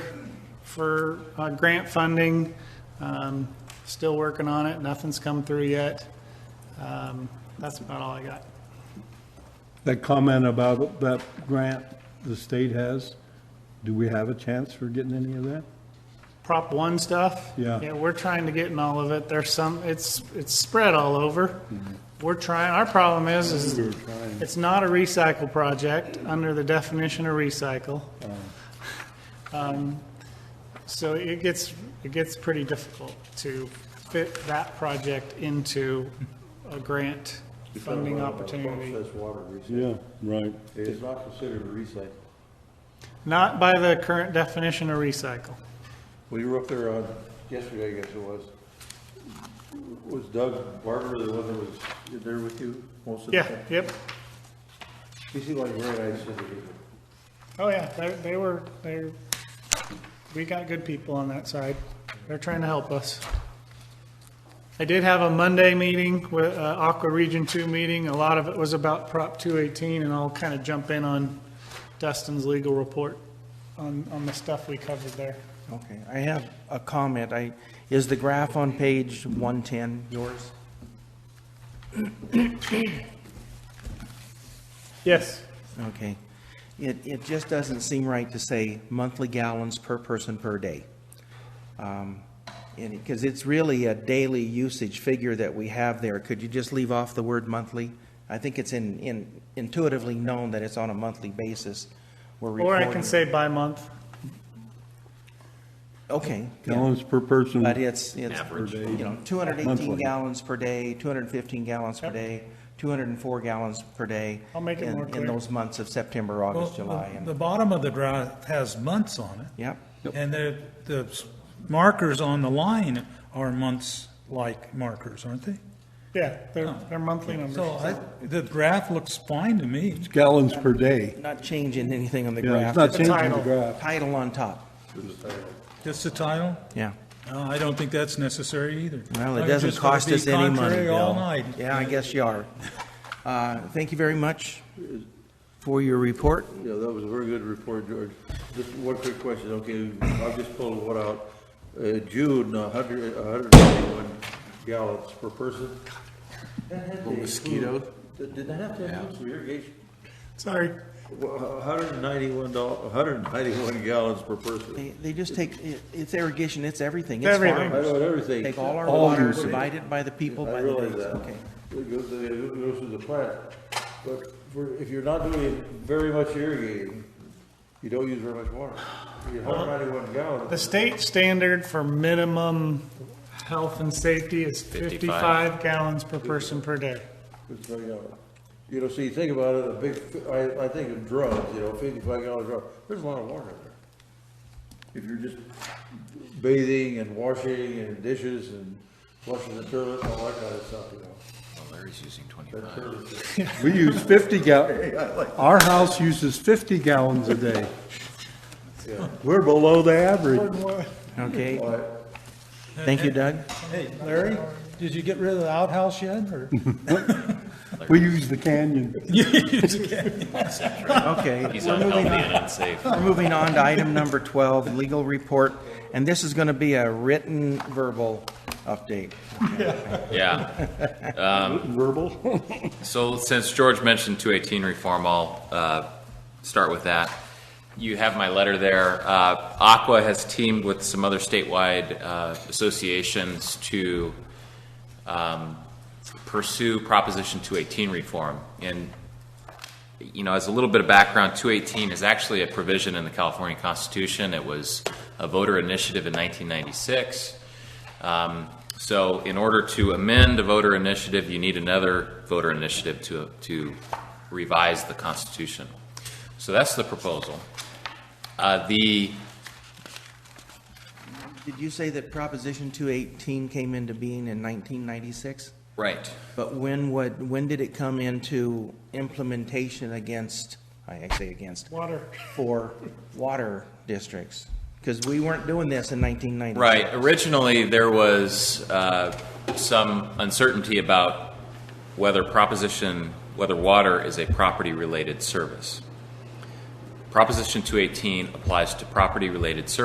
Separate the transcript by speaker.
Speaker 1: for uh, grant funding. Um, Still working on it, nothing's come through yet. Um, That's about all I got.
Speaker 2: That comment about that grant the state has, do we have a chance for getting any of that?
Speaker 1: Prop one stuff?
Speaker 2: Yeah.
Speaker 1: Yeah, we're trying to get in all of it. There's some, it's, it's spread all over. We're trying, our problem is, is it's not a recycle project under the definition of recycle. Um, So it gets, it gets pretty difficult to fit that project into a grant funding opportunity.
Speaker 3: Processed uh, water recycling.
Speaker 2: Yeah, right.
Speaker 3: It is not considered a recycle.
Speaker 1: Not by the current definition of recycle.
Speaker 3: We were up there uh, on, yesterday, I guess it was. Was Doug Barber the one that was there with you most of the
Speaker 1: Yeah,
Speaker 3: time?
Speaker 1: yep.
Speaker 3: He seemed like a very nice individual.
Speaker 1: Oh, yeah, they, they were, they, we got good people on that side. They're trying to help us. I did have a Monday meeting with, uh, Aqua Region Two meeting. A lot of it was about Prop two eighteen, and I'll kind of jump in on Dustin's legal report on, on the stuff we covered there.
Speaker 4: Okay, I have a comment. I, is the graph on page 110 yours?
Speaker 1: Yes.
Speaker 4: Okay. It, it just doesn't seem right to say monthly gallons per person per day. Um, And, because it's really a daily usage figure that we have there. Could you just leave off the word monthly? I think it's in, in intuitively known that it's on a monthly basis. We're
Speaker 1: Or I
Speaker 4: reporting-
Speaker 1: can say by month.
Speaker 4: Okay. yeah.
Speaker 2: Gallons per person.
Speaker 4: But it's, it's, you know,
Speaker 2: Monthly.
Speaker 4: 218 gallons per day, 215 gallons per
Speaker 1: Yep.
Speaker 4: day, 204 gallons per day.
Speaker 1: I'll make it
Speaker 4: in-
Speaker 1: more clear.
Speaker 4: In those months of September,
Speaker 5: Well,
Speaker 4: August,
Speaker 5: the-
Speaker 4: July,
Speaker 5: The
Speaker 4: and,
Speaker 5: bottom of the graph has months on it.
Speaker 4: yep,
Speaker 5: And the, the s- markers on the line are months-like markers, aren't they?
Speaker 1: Yeah, they're, they're monthly numbers.
Speaker 5: So uh, I, the graph looks fine to me.
Speaker 2: Gallons per day.
Speaker 4: not changing anything on the
Speaker 2: Yeah,
Speaker 4: graph.
Speaker 2: it's not
Speaker 4: just
Speaker 2: changing
Speaker 1: title.
Speaker 2: the graph.
Speaker 4: Title on top,
Speaker 5: Just the title?
Speaker 4: yeah.
Speaker 5: Uh, I don't think that's necessary either.
Speaker 4: Well, it
Speaker 5: I'm
Speaker 4: doesn't
Speaker 5: just gonna
Speaker 4: cost
Speaker 5: be
Speaker 4: us any money,
Speaker 5: contrary
Speaker 4: Bill.
Speaker 5: all night.
Speaker 4: Yeah, I guess you are. Uh, Thank you very much for your report.
Speaker 3: Yeah, that was a very good report, George. Just one quick question, okay, I'll just pull one out. Uh, June, a hundred, a hundred and eighty-one gallons per person. Mosquito? Did that have to include some irrigation?
Speaker 1: Sorry.
Speaker 3: Well, a hundred and ninety-one doll, a hundred and ninety-one gallons per person.
Speaker 4: They, they just take, it- it's irrigation, it's everything, it's
Speaker 1: Everything.
Speaker 3: I
Speaker 4: farmers.
Speaker 3: know everything.
Speaker 4: Take all our
Speaker 2: All
Speaker 4: water,
Speaker 2: usage.
Speaker 4: divide it by the people,
Speaker 3: I
Speaker 4: by the
Speaker 3: realize
Speaker 4: days,
Speaker 3: that.
Speaker 4: okay.
Speaker 3: It goes, to the- it goes through the plant, but for, if you're not doing very much irrigating, you don't use very much water. You have
Speaker 4: Uh-huh.
Speaker 3: ninety-one
Speaker 1: The
Speaker 3: gallons.
Speaker 1: state standard for minimum health and safety is 55 gallons per person per day.
Speaker 3: is very low. You know, so you think about it, a big, I, I think of drums, you know, fifty-five gallon drum, there's a lot of water in there. If you're just bathing and washing and dishes and flushing the toilet, and all that kind of stuff, you know.
Speaker 6: Larry's using 25.
Speaker 3: That toilet is-
Speaker 2: We use 50 gallons. our house uses 50 gallons a day. We're below the average.
Speaker 4: Okay,
Speaker 3: All right.
Speaker 4: thank you, Doug.
Speaker 5: Hey, Larry, did you get rid of the outhouse yet, or?
Speaker 2: We use the canyon.
Speaker 4: Okay.
Speaker 6: He's
Speaker 4: we're
Speaker 6: unhealthy
Speaker 4: moving on.
Speaker 6: and unsafe.
Speaker 4: We're moving on to item number 12, legal report, and this is going to be a written verbal update.
Speaker 6: Yeah. Um,
Speaker 2: Verbal?
Speaker 6: So since George mentioned 218 reform, I'll uh, start with that. You have my letter there. Uh, Aqua has teamed with some other statewide uh, associations to um, pursue Proposition 218 reform. And you know, as a little bit of background, 218 is actually a provision in the California Constitution. It was a voter initiative in 1996. Um, So in order to amend a voter initiative, you need another voter initiative to, to revise the Constitution. So that's the proposal. Uh, The,
Speaker 4: Did you say that Proposition 218 came into being in 1996?
Speaker 6: right,
Speaker 4: But when would, when did it come into implementation against, I say against,
Speaker 1: Water.
Speaker 4: for water districts? Because we weren't doing this in 1996.
Speaker 6: right. Originally, there was uh, some uncertainty about whether proposition, whether water is a property-related service. Proposition 218 applies to property-related services.